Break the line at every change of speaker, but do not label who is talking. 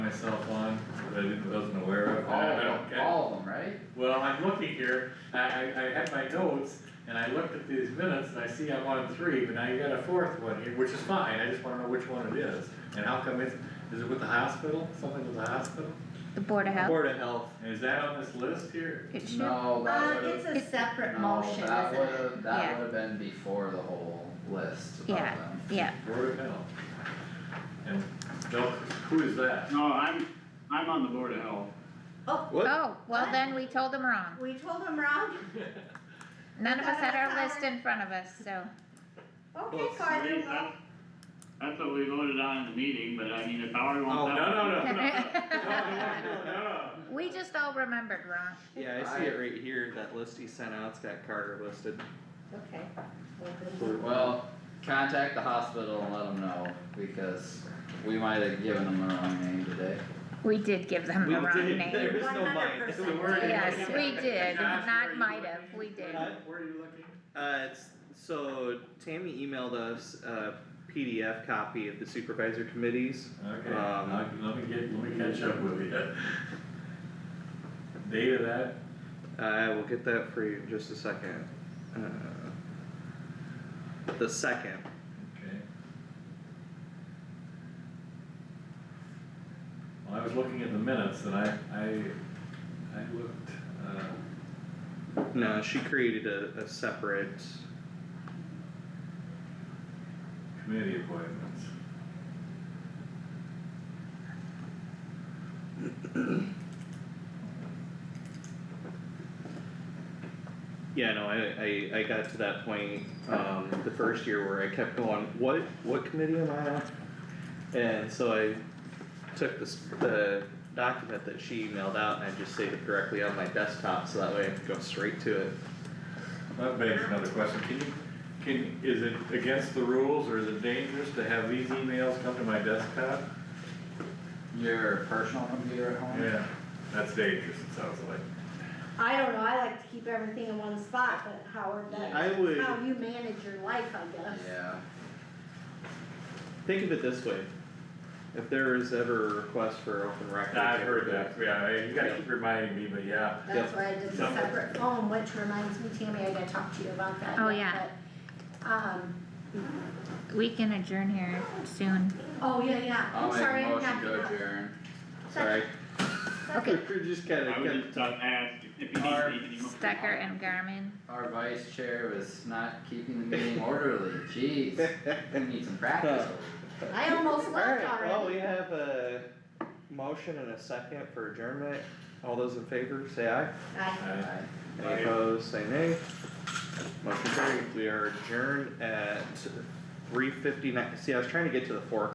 myself on, that I didn't, wasn't aware of,
All
I I
of
don't
them,
get,
all of them, right?
well, I'm looking here, I, I, I had my notes, and I looked at these minutes, and I see I'm on three, but now you got a fourth one here, which is fine, I just wanna know which one it is, and how come it's, is it with the hospital, something with the hospital?
The Board of Health,
Board of Health,
And is that on this list here?
it should,
No,
Uh,
that would've,
it's a separate
no,
motion,
that
isn't it?
would've, that
Yeah.
would've been before the whole list of
Yeah.
them.
yeah,
Board of Health. And, no, who is that?
No, I'm, I'm on the board of health.
Oh,
What?
oh, well then we told them wrong,
we told them wrong?
none of us had our
Sorry.
list in front of us, so,
Okay,
Well,
Carter,
Wait,
well,
that- That's what we voted on in the meeting, but I mean, if Howard
Oh,
wants that.
no, no,
one-
we just all remembered wrong.
yeah, I see it right here, that list he sent out, it's got Carter listed.
okay. Well, good.
Well, contact the hospital and let them know, because we might have given them the wrong name today.
We did give them
We
the wrong
did, there
name,
is no mine.
100%.
yes, we did,
Josh, where are
not
you
might have,
looking?
we did,
Huh?
Where are you looking?
Uh, it's, so Tammy emailed us a PDF copy of the supervisor committees.
Okay,
Um,
I- let me get, let me catch up with you. Date of that,
Uh, I will get that for you in just a second. Uh, The second,
okay. Well, I was looking at the minutes and I, I, I looked, uh,
no, she created a, a separate,
committee appointments.
yeah, no, I, I, I got to that point, um, the first year where I kept going, what, what committee am I on? And so I took this, the document that she emailed out and I just saved it directly on my desktop, so that way I could go straight to it.
That begs another question, can you, can, is it against the rules or is it dangerous to have these emails come to my desktop?
Your personal computer at home?
Yeah, that's dangerous, it sounds like.
I don't know, I like to keep everything in one spot, but Howard, that's
I would
how you manage your life, I guess.
Yeah,
think of it this way. If there is ever a request for open records.
I've heard that, yeah, you gotta keep reminding me, but yeah.
That's
Yep.
why I did the
Yep.
separate phone, which reminds me, Tammy, I gotta talk to you about that.
Oh,
yet,
yeah.
but, Um,
we can adjourn here soon,
oh, yeah, yeah,
I'll
I'm
make
sorry,
a
I'm
motion
not.
to adjourn.
Sorry,
okay,
we're just kinda.
I was just uh, asked if you
Our-
need any more.
Stecker and Garmin,
Our vice chair was not keeping the meeting orderly, jeez, we need some practice.
I almost left
Alright, well,
already.
we have a motion and a second for adjournment. All those in favor, say aye.
I-
Alright.
Any opposed, say nay. Motion carried. We are adjourned at three fifty-nine. See, I was trying to get to the four